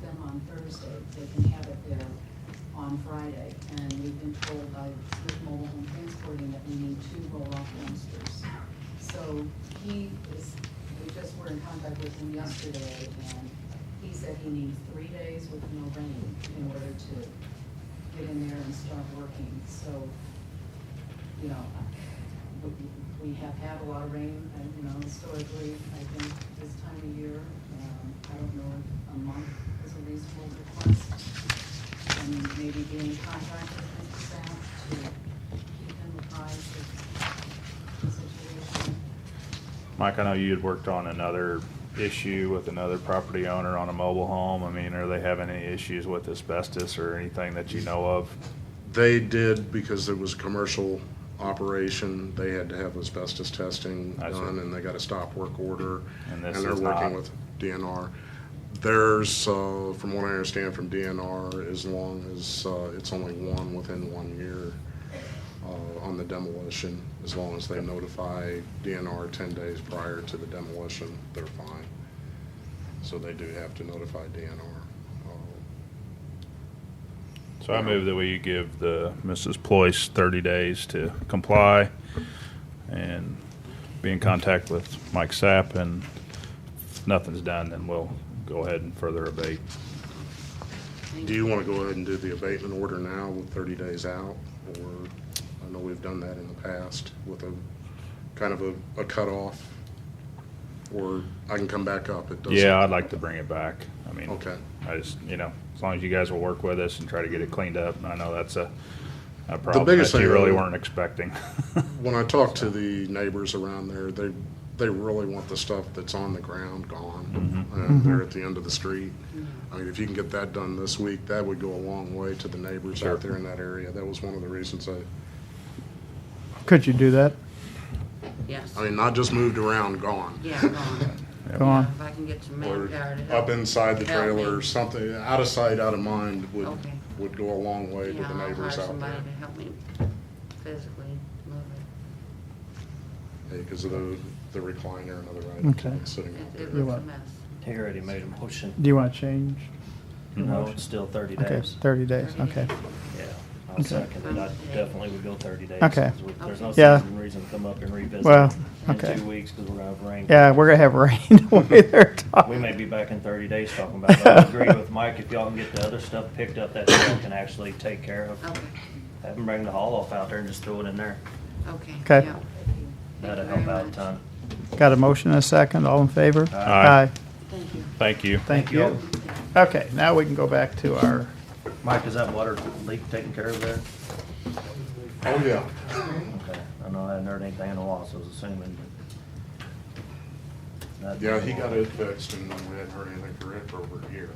them on Thursday, they can have it there on Friday. And we've been told by Smith Mobile Home Transporting that we need two roll-off dumpsters. So he is, we just were in contact with him yesterday, and he said he needs three days with no rain in order to get in there and start working. So you know, we, we have had a lot of rain, and, you know, historically, I think this time of year, um, I don't know if a month is a reasonable request. And maybe being in contact with Mr. Sapp to keep him apprised of the situation. Mike, I know you had worked on another issue with another property owner on a mobile home. I mean, are they having any issues with asbestos or anything that you know of? They did because it was a commercial operation. They had to have asbestos testing I see. done and they got a stop work order. And this they're is working not- with DNR. There's, uh, from what I understand from DNR, as long as, uh, it's only one within one year, uh, on the demolition, as long as they notify DNR ten days prior to the demolition, they're fine. So they do have to notify DNR. Uh, So I move that we give the Mrs. Ployce thirty days to comply and be in contact with Mike Sapp and if nothing's done, then we'll go ahead and further abate. Do you want to go ahead and do the abatement order now with 30 days out? Or, I know we've done that in the past with a, kind of a a cutoff? Or I can come back up, it doesn't. Yeah, I'd like to bring it back. I mean. Okay. I just, you know, as long as you guys will work with us and try to get it cleaned up, I know that's a, a problem biggest that you thing- really weren't expecting. When I talk to the neighbors around there, they, they really want the stuff that's on the ground Mm-hmm. gone. And they're at the end of the street. I mean, if you can get that done this week, that would go a long way to the neighbors Sure. out there in that area. That was one of the reasons I, Could you do that? Yes, I mean, not just moved around, gone. yeah, go on. Go on. If I can get some Or manpower to up help. inside the Help trailer, me. something, out of sight, out of mind would, Okay. would go a long way Yeah, with I'll the hire neighbors out somebody there. to help me physically move it. Because of the, the recliner and other items Okay. that's sitting out It- there. It You looks a what? mess. He already made a motion. Do you want to change? your No, motion? it's still thirty Okay, days. thirty days, okay. Yeah, I'll Okay. second it. I Okay. definitely would go thirty days. Okay. 'cause we- There's no Yeah. sense in reason to come up and revisit. Well, in okay. two weeks, because we're gonna have rain. Yeah, we're gonna have rain the way they're talking. We may be back in thirty days talking about it. I agree with Mike, if y'all can get the other stuff picked up that y'all can actually take care of. Okay, Have them bring the haul off out there and just throw it in there. okay. Okay. yeah. Thank you That'll very help out a much. ton. Got a motion and a second, all in favor? Aye. Thank you. Thank you. Thank you. Okay, now we can go back to our, Mike, is that water leak taken care of there? Oh, yeah. Okay, I know I hadn't heard anything in a while, so I was assuming. but- That- Yeah, he got it fixed and we hadn't heard anything from it for over a year.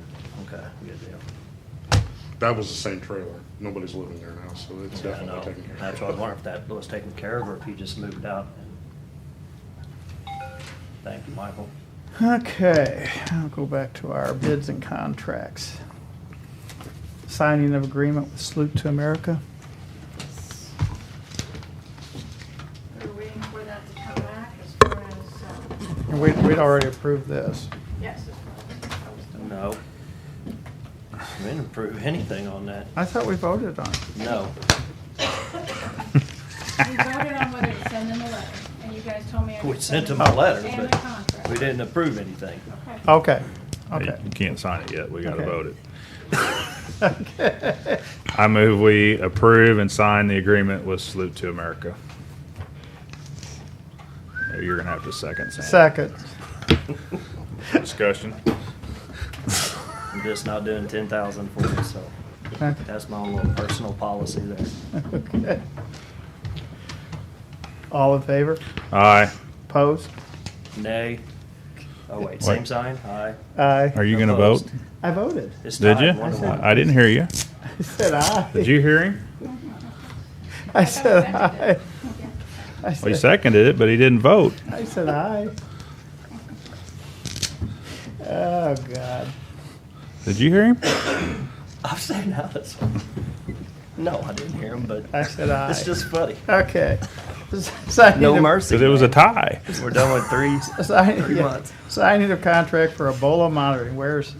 Okay, good deal. That was the same trailer. Nobody's living there now, so it's Yeah, I know. definitely taken care of. That's what I wondered if that was taken care of or if he just moved out. Thank you, Michael. okay, I'll go back to our bids and contracts. Signing of agreement with Salute to America. We're waiting for that to come back as far as, um, And we, we'd already approved this. yes. it's- I was told. No. We didn't approve anything on that. I thought we voted on it. No. We voted on whether to send them a letter, and you guys told me. I We could sent send him a letter, And the but contract. we didn't approve anything. Okay. Okay, Hey, okay. You can't sign it yet. We gotta Okay. vote it. I move we approve and sign the agreement with Salute to America. You're gonna have to second. Sam. Second, Discussion. I'm just not doing ten thousand for it, so okay. that's my own little personal policy there. Okay. All in favor? Aye. Opposed? Nay. Oh, wait, Wait. same sign? Aye. Aye. Are you gonna vote? Opposed. I voted. It's Did tied, you? one to one. I I didn't hear you. I said aye. Did you hear him? I said aye. I Well, he said, seconded it, but he didn't vote. I said aye. Oh, God. Did you hear him? I'm saying now that's. No, I didn't hear him, but I said aye. it's just funny. Okay. Signing No of- mercy. Cause it was a tie. We're done with three. Signing, Three yeah. months. signing of contract for Ebola monitoring. Where's,